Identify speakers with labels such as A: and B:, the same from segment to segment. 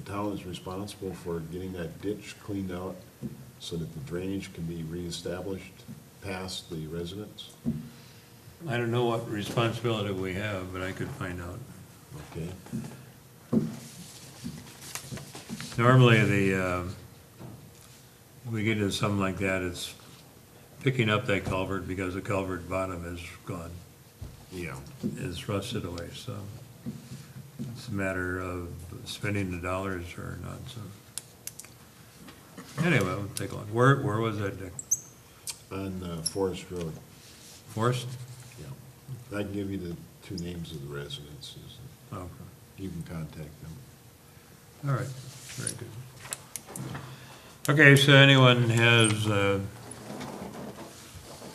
A: town is responsible for getting that ditch cleaned out so that the drainage can be reestablished past the residents?
B: I don't know what responsibility we have, but I could find out.
A: Okay,
B: Normally, the, uh, when we get into something like that, it's picking up that culvert because the culvert bottom is gone,
A: yeah.
B: is rusted away, so it's a matter of spending the dollars or not, so. Anyway, we'll take a look. Where, where was that, Dick?
A: On uh, Forest Road,
B: Forest?
A: yeah. I can give you the two names of the residences.
B: Oh, okay.
A: You can contact them.
B: all right, very good. Okay, so anyone has uh,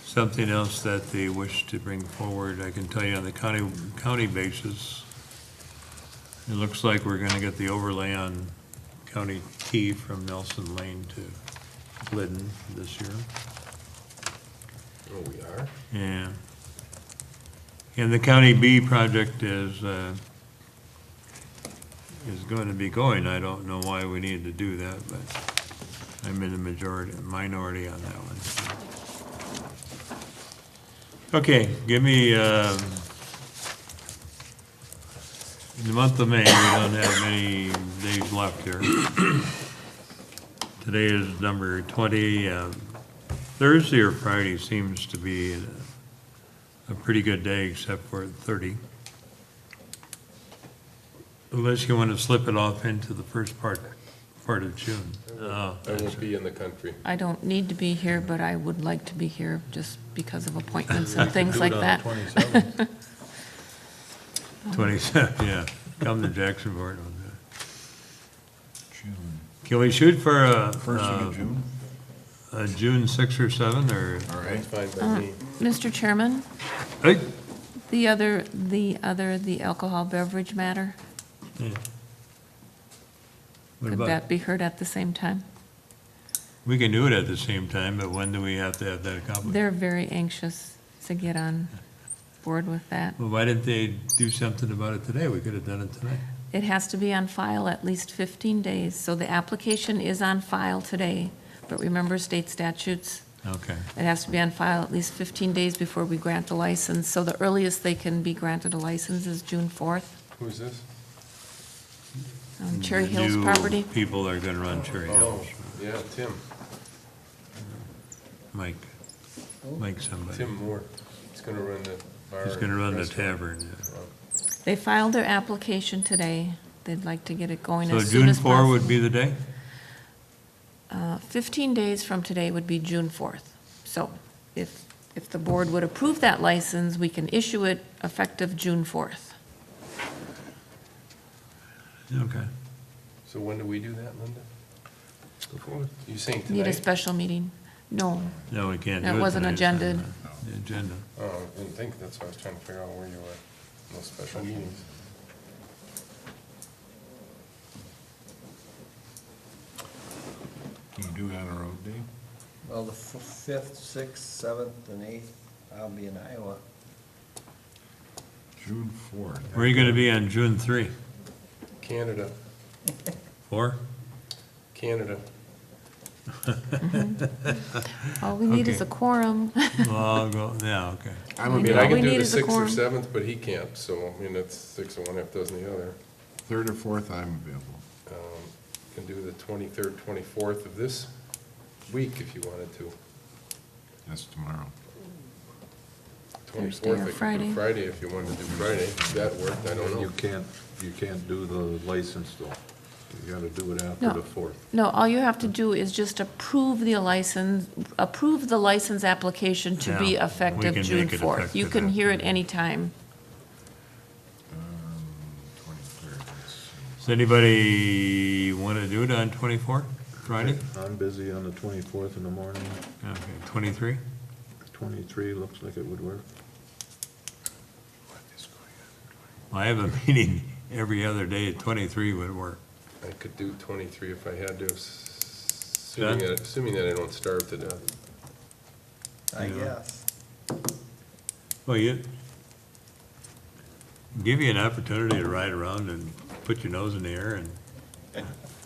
B: something else that they wish to bring forward? I can tell you on the county, county basis, it looks like we're gonna get the overlay on County T from Nelson Lane to Glidden this year.
A: Oh, we are?
B: Yeah. And the County B project is, uh, is going to be going. I don't know why we need to do that, but I'm in the majority, minority on that one. Okay, give me, um, in the month of May, we don't have many days left here. Today is number 20. um, Thursday or Friday seems to be a- a pretty good day, except for at 30. Unless you want to slip it off into the first part, part of June. Oh,
C: I won't be in the country.
D: I don't need to be here, but I would like to be here just because of appointments and things like that.
B: 27, yeah. Come to Jacksonport on that. Can we shoot for a, uh, a-
A: June?
B: a Uh, June 6 or 7, or?
A: All right.
C: It's fine by me.
D: Mr. Uh, Chairman,
B: Hey,
D: the other, the other, the alcohol beverage matter,
B: What
D: could
B: about-
D: that be heard at the same time?
B: We can do it at the same time, but when do we have to have that accomplished?
D: They're very anxious to get on board with that.
B: Well, why didn't they do something about it today? We could have done it tonight.
D: It has to be on file at least 15 days, so the application is on file today, but remember state statutes,
B: Okay.
D: it has to be on file at least 15 days before we grant the license, so the earliest they can be granted a license is June 4th.
C: Who's this?
D: on Cherry
B: The
D: Hills
B: new
D: property.
B: People are gonna run Cherry
C: Oh,
B: Hills.
C: yeah, Tim,
B: Mike, Mike somebody.
C: Tim Moore. He's gonna run the bar.
B: He's gonna
C: and
B: run the
C: restaurant.
B: tavern. yeah.
D: They filed their application today. They'd like to get it going
B: So
D: as soon
B: June
D: as
B: 4
D: possible.
B: would be the day?
D: Uh, 15 days from today would be June 4th. So if, if the board would approve that license, we can issue it effective June 4th.
B: Okay.
C: So when do we do that, Linda? You saying
D: Need a
C: tonight?
D: special meeting? No,
B: No, we can't do it
D: That wasn't
B: tonight, it's on
D: agended.
B: the- the Agenda.
C: Oh, I didn't think, that's why I was trying to figure out where you were, no special meetings.
A: Can you do it on a road day?
E: Well, the f- fifth, sixth, seventh, and eighth, I'll be in Iowa.
A: June fourth.
B: Where are you gonna be on June 3?
C: Canada,
B: 4?
C: Canada.
D: all we need is a
B: Okay.
D: quorum.
B: Well, I'll go, yeah, okay.
A: I'm
C: I
A: gonna
C: mean,
A: be
C: I
D: All
A: out
D: we
C: can do
D: need
C: the
D: is a
C: sixth or
D: quorum.
C: seventh, but he can't, so, I mean, that's six of one, half dozen the other.
A: third or fourth, I'm available.
C: Um, Can do the twenty-third, twenty-fourth of this week if you wanted to.
A: That's tomorrow.
D: Thursday or
C: Twenty-fourth, I could
D: Friday.
C: do Friday if you wanted to do Friday. That worked, I don't
F: You
C: know.
F: can't, you can't do the license though. You gotta do it after
D: No.
F: the fourth.
D: No, all you have to do is just approve the license, approve the license application to be
B: Yeah, we
D: effective
B: can
D: June
B: make it
D: 4th. You
B: effective
D: can hear it
B: after.
D: any time.
A: Twenty-third,
B: Does anybody wanna do it on 24, Friday?
F: I'm busy on the twenty-fourth in the morning.
B: Okay, 23?
F: Twenty-three looks like it would work.
A: what is going
B: I have a meeting every other day at 23 would work.
C: I could do twenty-three if I had to, s-
B: Yeah.
C: assuming that, assuming that I don't starve to death.
E: I
B: Yeah.
E: guess.
B: Well, you, give you an opportunity to ride around and put your nose in the air and